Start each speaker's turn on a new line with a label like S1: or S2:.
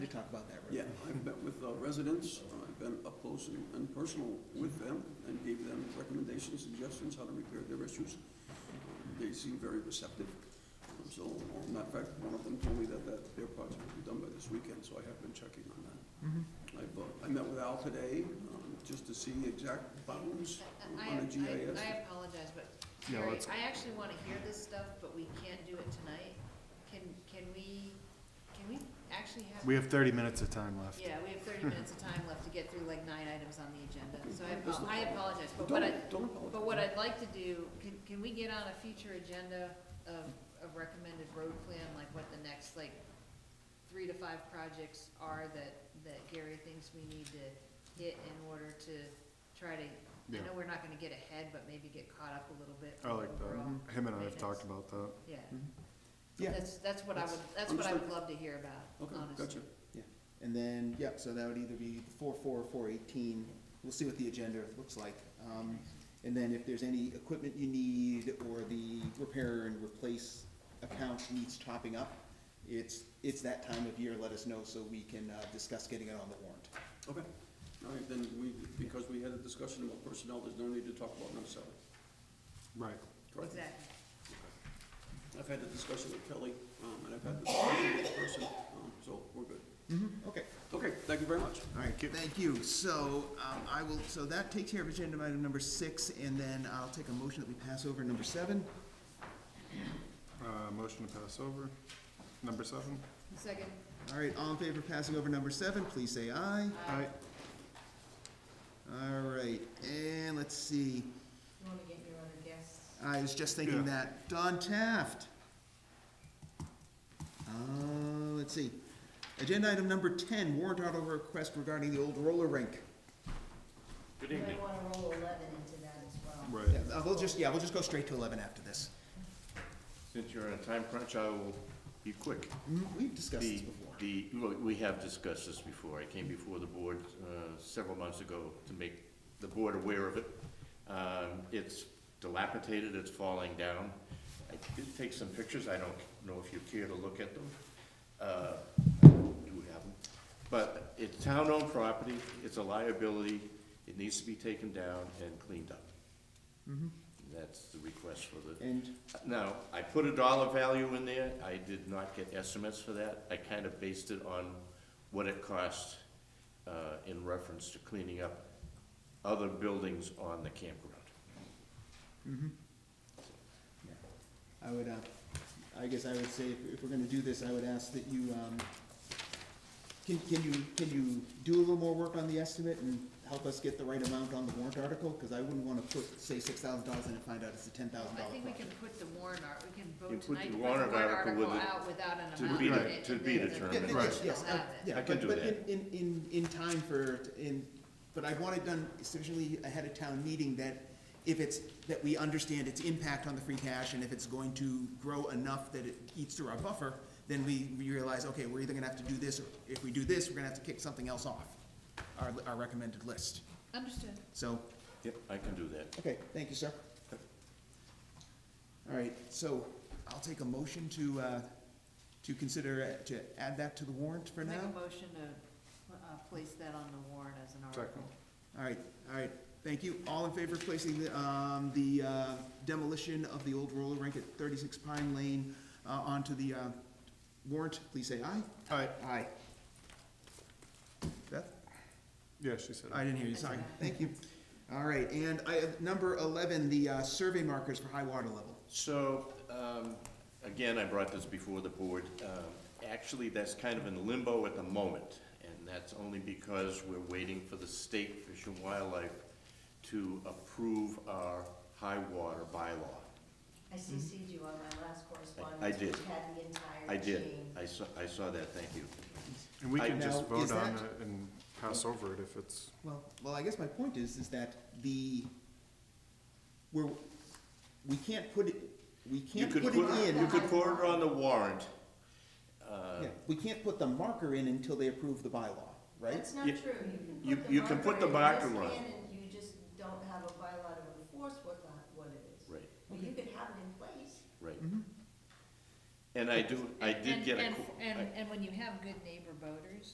S1: talk about that, right?
S2: Yeah, I've met with uh, residents, uh, I've been up close and- and personal with them, and gave them recommendations, suggestions, how to repair their issues. They seem very receptive, Um, so, uh, matter of fact, one of them told me that, that their project will be done by this weekend, so I have been checking on that.
S1: Mhm.
S2: I've, uh, I met with Al today, um, just to see exact bounds
S3: I,
S2: on the GIS.
S3: I- I apologize, but
S4: Yeah,
S3: Terry,
S4: let's-
S3: I actually wanna hear this stuff, but we can't do it tonight. Can, can we, can we actually have?
S4: We have thirty minutes of time left.
S3: Yeah, we have thirty minutes of time left to get through like nine items on the agenda, so I,
S2: That's no
S3: apo- I
S2: problem.
S3: apologize, but what I,
S2: Don't, don't apologize.
S3: but what I'd like to do, can, can we get on a future agenda of, of recommended road plan, like what the next, like, three to five projects are that, that Gary thinks we need to hit in order to try to, I
S4: Yeah.
S3: know we're not gonna get ahead, but maybe get caught up a little bit.
S4: I like
S3: overall.
S4: that. mm-hmm. Him and I have talked about that.
S3: Yeah,
S1: Yeah,
S3: that's, that's what I would, that's what I would
S2: Understood.
S3: love to hear about,
S2: Okay,
S3: honestly.
S2: gotcha.
S1: and then, yeah, so that would either be four, four, or four eighteen, we'll see what the agenda looks like. Um, and then if there's any equipment you need, or the repair and replace account needs topping up, it's, it's that time of year, let us know so we can, uh, discuss getting it on the warrant.
S2: Okay, all right, then we, because we had a discussion about personnel, there's no need to talk about non-salary,
S4: Right.
S2: correct?
S3: Exactly.
S2: I've had the discussion with Kelly, um, and I've had the discussion with the person, um, so we're good.
S1: Mm-hmm. Okay.
S2: Okay, thank you very much.
S1: All right, thank you. So, um, I will, so that takes care of agenda item number six, and then I'll take a motion that we pass over number seven.
S4: Uh, motion to pass over. Number seven.
S3: Second,
S1: All right, all in favor of passing over number seven, please say aye.
S4: Aye.
S1: All right, and let's see,
S3: you wanna get your other guests?
S1: I was just thinking
S4: Yeah.
S1: that, Don Taft. Uh, let's see, agenda item number ten, warrant article request regarding the old roller rink.
S5: You might wanna roll eleven into that as well.
S4: Right.
S1: Yeah, uh, we'll just, yeah, we'll just go straight to eleven after this.
S6: Since you're on a time crunch, I will be quick.
S1: Mm, We've discussed this
S6: The,
S1: before.
S6: the, well, we have discussed this before. I came before the board uh, several months ago to make the board aware of it. Um, It's dilapidated, it's falling down. I did take some pictures. I don't know if you care to look at them. Uh, Do have them. But it's town-owned property, it's a liability, it needs to be taken down and cleaned up. That's the request for the
S1: And,
S6: now, I put a dollar value in there, I did not get estimates for that, I kind of based it on what it cost, uh, in reference to cleaning up other buildings on the campground.
S1: yeah, I would, uh, I guess I would say, if, if we're gonna do this, I would ask that you, um, can, can you, can you do a little more work on the estimate and help us get the right amount on the warrant article? Cause I wouldn't wanna put, say, six thousand dollars in and find out it's a ten thousand
S3: I
S1: dollar
S3: think we can
S1: project.
S3: put the warrant art, we can
S6: You
S3: vote
S6: put
S3: tonight
S6: the
S3: to put the
S6: warrant
S3: warrant
S6: article
S3: article
S6: with it
S3: out without an
S6: to
S3: amount
S6: be
S3: in
S6: de-
S3: it.
S6: to
S3: and
S6: be
S3: then the-
S6: determined.
S1: Yeah, yeah,
S6: Right.
S1: yes, yes,
S3: They'll
S1: uh,
S3: have it.
S1: yeah,
S6: I can
S1: but,
S6: do
S1: but in,
S6: that.
S1: in, in, in time for, in, but I want it done sufficiently ahead of town meeting that if it's, that we understand its impact on the free cash, and if it's going to grow enough that it eats through our buffer, then we, we realize, okay, we're either gonna have to do this, or if we do this, we're gonna have to kick something else off, our, our recommended list.
S3: Understood.
S1: So,
S6: Yep, I can do that.
S1: okay, thank you, sir. All right, so I'll take a motion to, uh, to consider, uh, to add that to the warrant for now.
S3: Make a motion to, uh, place that on the warrant as an article.
S4: Second.
S1: All right, all right, thank you. All in favor of placing the, um, the uh, demolition of the old roller rink at thirty-six Pine Lane, uh, onto the, uh, warrant, please say aye.
S4: Aye.
S1: Aye. Beth?
S4: Yeah, she said.
S1: I didn't hear you, sorry, thank you. All right, and I, number eleven, the, uh, survey markers for high water level.
S6: So, um, again, I brought this before the board. Um, Actually, that's kind of in limbo at the moment, and that's only because we're waiting for the state Fish and Wildlife to approve our high water bylaw.
S5: I
S1: Mm-hmm.
S5: CC'd you on my last correspondence.
S6: I did.
S5: which Had the entire
S6: I did,
S5: chain.
S6: I saw, I saw that, thank you.
S4: And we
S6: I-
S4: can just
S1: Now,
S4: vote
S1: is
S4: on
S1: that-
S4: it and pass over it if it's,
S1: Well, well, I guess my point is, is that the, we're, we can't put it, we
S6: You
S1: can't
S6: could
S1: put it in.
S6: You could put it on the warrant,
S1: Yeah, we can't put the marker in until they approve the bylaw, right?
S5: That's not
S6: You-
S5: true.
S6: you- you can put the marker
S5: in,
S6: on.
S5: yes, And you just don't have a bylaw to enforce what that, what it is.
S6: right,
S5: But you could have it in place.
S6: right. And I do, I did
S3: And-
S6: get a.
S3: and-
S6: qu- I-
S3: And, and when you have good neighbor voters,